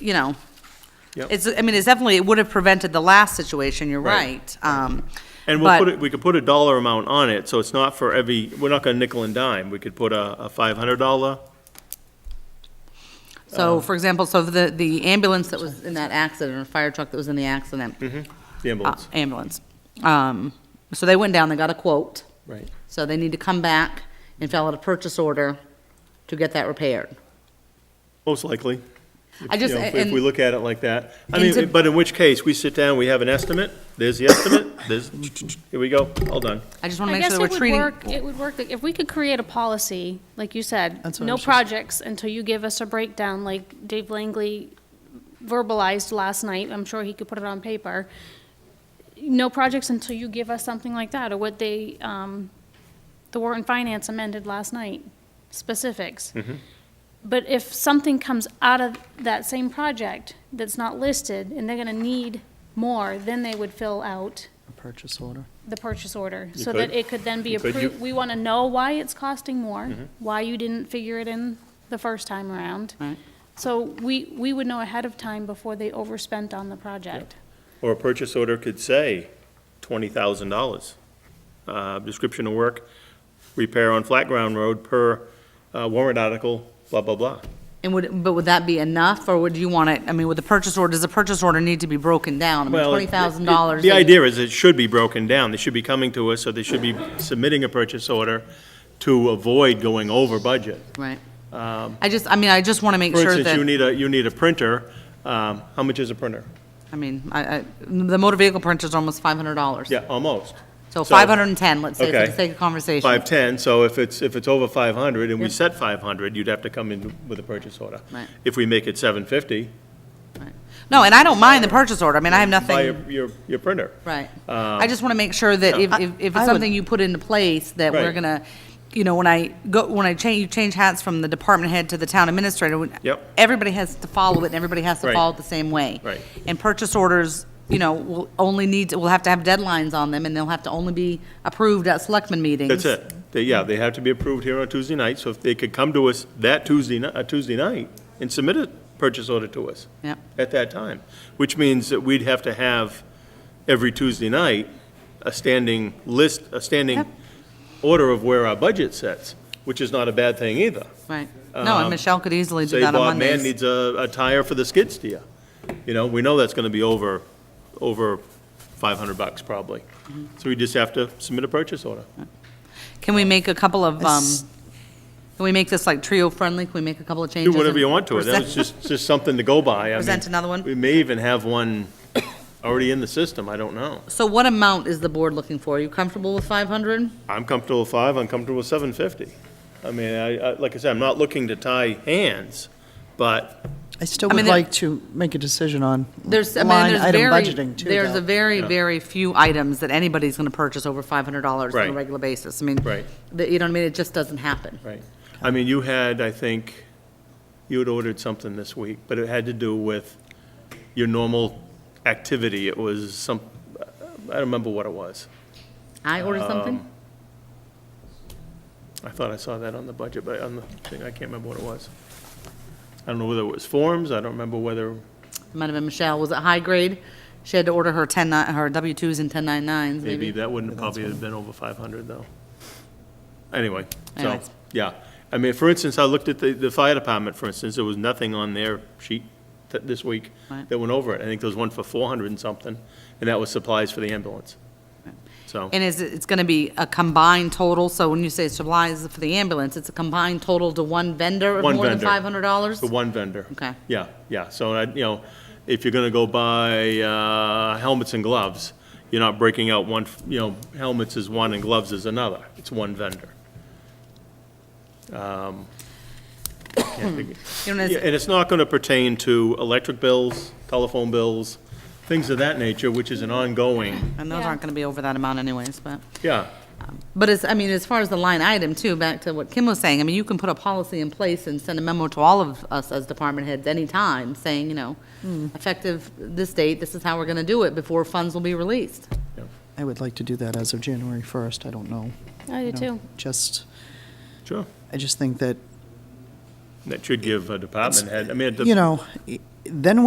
you know, Yep. it's, I mean, it's definitely, it would have prevented the last situation, you're Right. right. Um, And we'll but- put it, we could put a dollar amount on it, so it's not for every, we're not gonna nickel and dime. We could put a, a five hundred dollar. uh, So, for example, so the, the ambulance that was in that accident, or fire truck that was in the accident, Mm-hmm. The uh, ambulance. ambulance. Um, so they went down, they got a quote. Right. So they need to come back and fill out a purchase order to get that repaired. Most likely. I just, You know, if we- If and- we look at it like that. I And to- mean, but in which case, we sit down, we have an estimate, there's the estimate, there's, here we go, all done. I just want to I make guess sure that it we're would treating. work, it would work, like, if we could create a policy, like you said, That's what I no was just- projects until you give us a breakdown, like Dave Langley verbalized last night, I'm sure he could put it on paper. No projects until you give us something like that, or what they, um, the Warren Finance amended last night, specifics. Mm-hmm. But if something comes out of that same project that's not listed, and they're gonna need more, then they would fill out Purchase order. the purchase order, You so that could. it could then be You Mm-hmm. could. approved. You- We want to know why it's costing more, why you didn't figure it in the first time around. Right. So we, we would know ahead of time before they overspent on the project. Or a purchase order could say twenty thousand dollars. Uh, description of work, repair on flat ground road per uh, warrant article, blah, blah, blah. And would, but would that be enough, or would you want it, I mean, would the purchase order, does the purchase order need to be broken down? I mean, Well, twenty thousand dollars. The idea is it should be broken down. They should be coming to us, or they should be submitting a purchase order to avoid going over budget. Right. I just, I mean, I just want to make Um, For sure instance, that, you need a, you need a printer. Um, How much is a printer? I mean, I, I, the motor vehicle printer's almost five hundred dollars. Yeah, almost. So so- five hundred and ten, let's say, for Okay. the sake of conversation. 510, so if it's, if it's over 500 and we Yep. set 500, you'd have to come in with a purchase order. Right. If we make it 750, No, and I don't mind the purchase order, I mean, I have buy um, nothing, your- your, your printer. right. I just want to make sure that if, if, if I it's would- something you put into place, that we're Right. gonna, you know, when I go, when I change, you change hats from the department head to the town administrator. when- Yep. Everybody has to follow it, and everybody has to Right. follow it the same way. Right. And purchase orders, you know, will only need, to- will have to have deadlines on them, and they'll have to only be approved at selectmen meetings. That's it. They, yeah, they have to be approved here on Tuesday night, so if they could come to us that Tuesday, ni- uh, Tuesday night and submit a purchase order to us. Yep. At that time, which means that we'd have to have every Tuesday night a standing list, a standing Yep. order of where our budget sets, which is not a bad thing either. Right. No, and Um, Michelle could easily do Say that on Bob Mann Mondays. needs a, a tire for the skid steer. You know, we know that's gonna be over, over five hundred bucks probably. Mm-hmm. So we just have to submit a purchase order. Can we make a couple of, um, It's- can we make this like trio-friendly? Can we make a couple of Do changes? whatever and you want to it, present- that's just, just something to go by. I mean, Present another one? We may even have one already in the system, I don't know. So what amount is the board looking for? Are you comfortable with five hundred? I'm comfortable with five, I'm comfortable with seven fifty. I mean, I, I, like I said, I'm not looking to tie hands, but, I I still mean, would there- like to make a decision on There's, I mean, line there's item very, budgeting too, there's a though. very, Yeah. very few items that anybody's gonna purchase over five hundred dollars on a Right. regular basis. I mean, Right. the- you know what I mean? It just doesn't happen. right. I mean, you had, I think, you had ordered something this week, but it had to do with your normal activity. It was some, I don't remember what it was. I Um, ordered something? I thought I saw that on the budget, but on the thing, I can't remember what it was. I don't know whether it was forms, I don't remember whether, It Might have been Michelle. Was it high grade? She had to order her ten, ni- her W twos and ten nine nines, maybe maybe. that wouldn't probably have been over five hundred though. Anyway, so, Anyways. yeah. I mean, for instance, I looked at the, the fire department, for instance, there was nothing on their sheet that, this week Right. that went over it. I think there was one for four hundred and something, and that was supplies for the ambulance. So, And is, it- it's gonna be a combined total, so when you say supplies for the ambulance, it's a combined total to one vendor of One more than vendor. five hundred dollars? for one vendor. Okay. Yeah, yeah, so, I- you know, if you're gonna go buy uh, helmets and gloves, you're not breaking out one, f- you know, helmets is one and gloves is another, it's one vendor. Um, can't think- You know, Yeah, it's- And it's not gonna pertain to electric bills, telephone bills, things of that nature, which is an ongoing, And those Yeah. aren't gonna be over that amount anyways, but. yeah, But as, I mean, as far as the line item too, back to what Kim was saying, I mean, you can put a policy in place and send a memo to all of us as department heads anytime, saying, you know, effective this date, this is how we're gonna do it before funds will be released. I would like to do that as of January 1st. I don't know. I do you know, too. Just, sure. I just think that That should give a department head, I mean, it you does- know, i- then